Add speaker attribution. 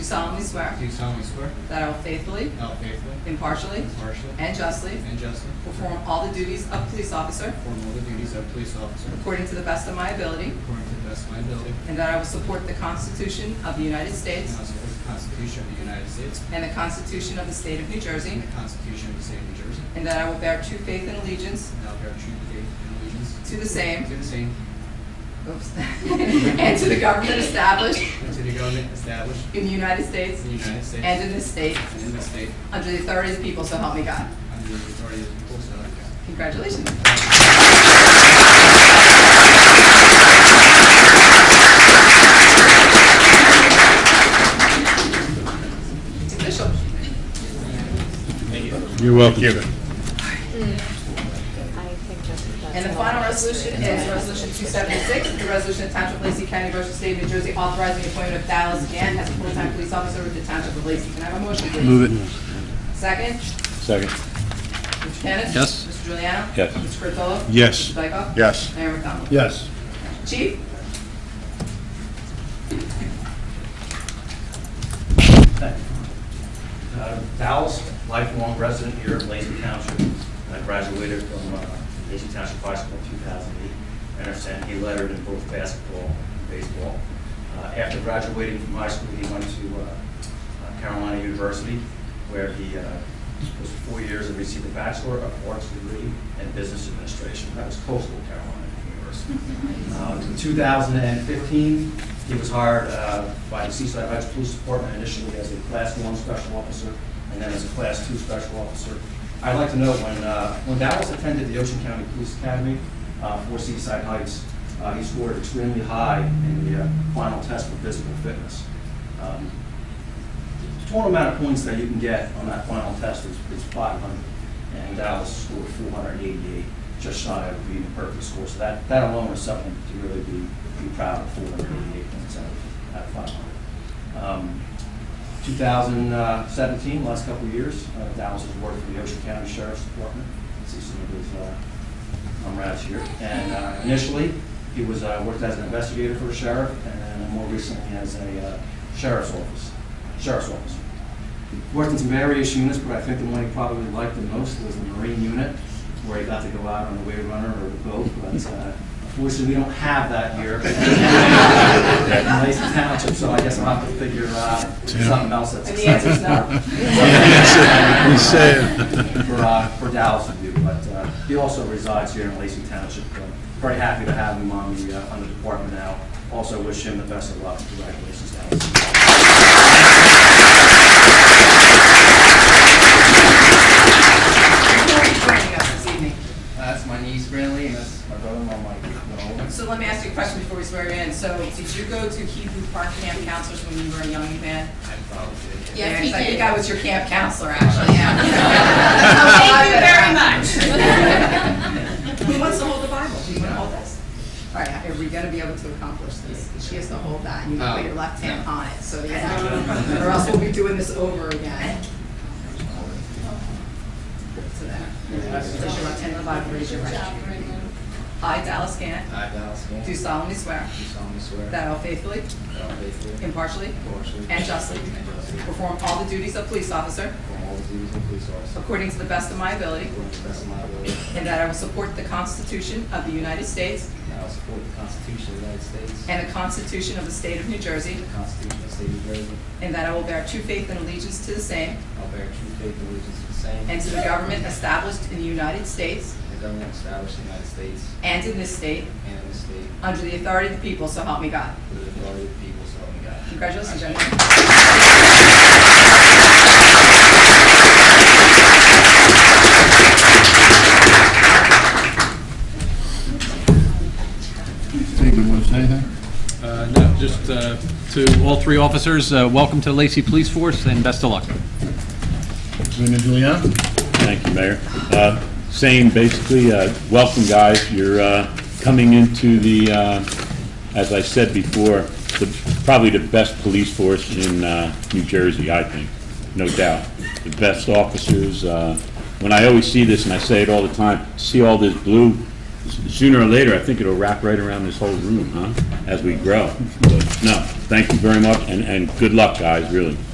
Speaker 1: solemnly swear
Speaker 2: do solemnly swear
Speaker 1: that I will faithfully,
Speaker 2: that I will faithfully,
Speaker 1: impartially,
Speaker 2: impartially,
Speaker 1: and justly
Speaker 2: and justly
Speaker 1: perform all the duties of police officer
Speaker 2: perform all the duties of police officer
Speaker 1: according to the best of my ability,
Speaker 2: according to the best of my ability,
Speaker 1: and that I will support the Constitution of the United States
Speaker 2: and I will support the Constitution of the United States
Speaker 1: and the Constitution of the State of New Jersey,
Speaker 2: and the Constitution of the State of New Jersey,
Speaker 1: and that I will bear true faith and allegiance
Speaker 2: and I will bear true faith and allegiance
Speaker 1: to the same
Speaker 2: to the same
Speaker 1: oops, and to the government established
Speaker 2: and to the government established
Speaker 1: in the United States
Speaker 2: in the United States
Speaker 1: and in this state
Speaker 2: and in this state
Speaker 1: under the authority of the people, so help me God.
Speaker 2: under the authority of the people, so help me God.
Speaker 1: Congratulations. It's official.
Speaker 3: You're welcome.
Speaker 4: I think that's that's
Speaker 1: And the
Speaker 4: all.
Speaker 1: final resolution is Resolution 276, the resolution of Township of Lacey County, Ocean State, New Jersey, authorizing the appointment of Dallas Gann as a full-time police officer with the Township of Lacey. Can I have a motion, please?
Speaker 3: Move it.
Speaker 1: Second,
Speaker 3: Second.
Speaker 1: Mr. Kennis?
Speaker 3: Yes.
Speaker 1: Mr. Juliano?
Speaker 3: Yes.
Speaker 1: Mr. Curatolo?
Speaker 3: Yes.
Speaker 1: Mr. Dykoff?
Speaker 3: Yes.
Speaker 1: Mayor McDonald?
Speaker 3: Yes.
Speaker 1: Chief?
Speaker 5: Uh, Dallas, lifelong resident here of Lacey Township. I graduated from uh, Lacey Township High School in 2008 and have sent a letter in both basketball and baseball. Uh, After graduating from high school, he went to uh, Carolina University where he uh, was four years and received a Bachelor of Arts degree in Business Administration. That was Coastal Carolina University. Uh, In 2015, he was hired uh, by the Seaside Heights Police Department initially as a Class 1 Special Officer, and then as a Class 2 Special Officer. I'd like to note, when, uh, when Dallas attended the Ocean County Police Academy uh, for Seaside Heights, uh, he scored extremely high in the uh, final test for physical fitness. Um, the total amount of points that you can get on that final test is, is five hundred, and Dallas scored four hundred eighty-eight, just shy of being a perfect score, so that, that alone is something to really be, be proud of, four hundred eighty-eight points out of, out of five hundred. Um, Two thousand seventeen, last couple of years, uh, Dallas has worked for the Ocean County Sheriff's Department, see some of his, uh, I'm right here. And uh, initially, he was, uh, worked as an investigator for the sheriff, and then more recently as a uh, sheriff's office, sheriff's officer. Worked in some various units, but I think the one he probably liked the most was the Marine unit, where he got to go out on the wave runner or the boat, but uh, unfortunately, we don't have that here. in Lacey Township, so I guess I'll have to figure uh, something else that's.
Speaker 1: And the answer's no.
Speaker 3: He said.
Speaker 5: For, uh, for Dallas to do, but, uh, he also resides here in Lacey Township. Uh, Very happy to have him on the, uh, on the department now. Also wish him the best of luck. Congratulations, Dallas.
Speaker 1: Who are you joining us this evening?
Speaker 2: Uh, That's my niece Brinley, and that's my brother-in-law Mike. No.
Speaker 1: So let me ask you a question before we swear you in. So did you go to Hebrew Park Camp counselors when you were a young man?
Speaker 2: I probably did.
Speaker 6: Yes, he
Speaker 1: I think
Speaker 6: did. Oh,
Speaker 1: I was your camp counselor, actually, yeah.
Speaker 6: Thank you very much.
Speaker 1: Who wants to hold the Bible? Do you want to hold this? All right, are we going to be able to accomplish this? She has to hold that, and you can put your left hand on it, so, yeah. Or else we'll be doing this over again. So there. Place your left hand on the Bible, raise your right. I, Dallas Gann,
Speaker 2: I, Dallas Gann,
Speaker 1: do
Speaker 2: do
Speaker 1: solemnly swear
Speaker 2: solemnly swear
Speaker 1: that I will faithfully,
Speaker 2: that I will faithfully,
Speaker 1: impartially,
Speaker 2: impartially,
Speaker 1: and justly
Speaker 2: and justly
Speaker 1: perform all the duties of police officer
Speaker 2: perform all the duties of police officer
Speaker 1: according to the best of my ability,
Speaker 2: according to the best of my ability,
Speaker 1: and that I will support the Constitution of the United States
Speaker 2: and I will support the Constitution of the United States
Speaker 1: and the Constitution of the State of New Jersey,
Speaker 2: the Constitution of the State of New Jersey,
Speaker 1: and that I will bear true faith and allegiance to the same
Speaker 2: I'll bear true faith and allegiance to the same.
Speaker 1: and to the government established in the United States
Speaker 2: The government established in the United States
Speaker 1: and in this state
Speaker 2: and in this state
Speaker 1: under the authority of the people, so help me God.
Speaker 2: with the authority of the people, so help me God.
Speaker 1: Congratulations, gentlemen.
Speaker 3: Stephen, want to say anything?
Speaker 7: Uh, No, just uh, to all three officers, uh, welcome to the Lacey Police Force and best of luck.
Speaker 3: Lena Juliana?
Speaker 8: Thank you, Mayor. Uh, Same, basically, uh, welcome, guys. You're uh, coming into the, uh, as I said before, the- probably the best police force in uh, New Jersey, I think, no doubt. The best officers. uh, When I always see this, and I say it all the time, see all this blue sooner or later, I think it'll wrap right around this whole room, huh, as we grow. No, thank you very much, and, and good luck, guys, really.